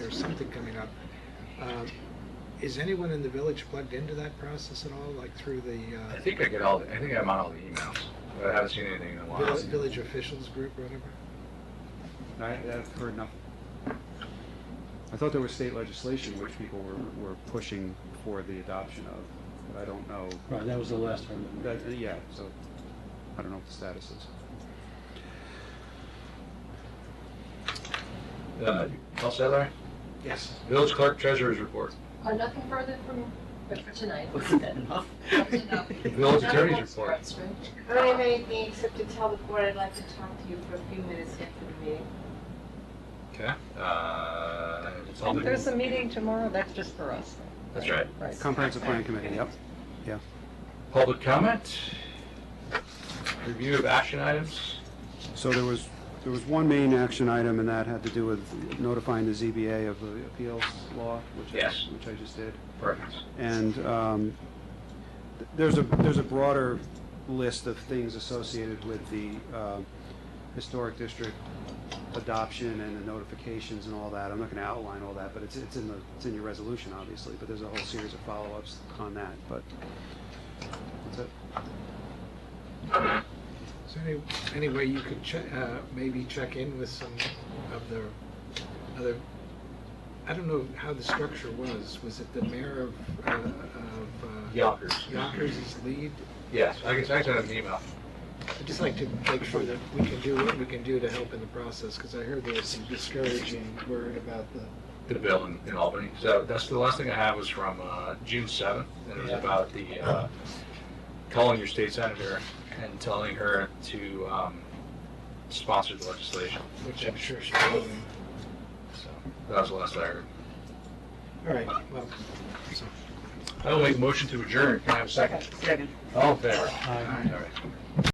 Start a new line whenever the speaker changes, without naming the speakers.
something coming up. Um, Is anyone in the village plugged into that process at all, like through the
I
uh,
think I get all, the- I think I'm on all the emails, but I haven't seen anything in a while.
vill- village officials group or whatever?
I, I've heard nothing. I thought there was state legislation which people were, were pushing for the adoption of, but I don't know.
Right, that was the last one.
That, yeah, so I don't know what the status is.
Uh, All set, Larry?
Yes.
Village clerk treasurer's report.
Uh, nothing further from, but for tonight.
Wasn't that enough?
That's enough.
Village
Nothing
attorney's
else for
report.
us, right?
I don't have anything except to tell the board I'd like to talk to you for a few minutes after the meeting.
Okay. Uh,
There's a meeting tomorrow, that's just for us.
That's right.
Right.
Comprehensive Plan Committee, yep.
Public comment? Review of action items?
So there was, there was one main action item, and that had to do with notifying the ZBA of the appeals law, which I,
Yes.
which I just did.
Perfect.
And um, th- there's a, there's a broader list of things associated with the um, historic district adoption and the notifications and all that. I'm not going to outline all that, but it's, it's in the, it's in your resolution, obviously, but there's a whole series of follow-ups on that, but that's it.
Is there any, any way you could che- uh, maybe check in with some of the other, I don't know how the structure was. Was it the mayor of, uh, of uh,
Yonkers.
Yonkers is lead?
Yes, I guess I sent an email.
I'd just like to make sure that we can do what we can do to help in the process, because I heard there was some discouraging word about the
the bill in, in Albany. So that's the last thing I have was from uh, June seventh, and it was about the uh, calling your state senator and telling her to um, sponsor the legislation.
Which I'm sure she's doing.
So that was the last I heard.
All right, well, so,
I will make a motion to adjourn. Can I have a second?
Second.
All in favor?
Aye.
All right.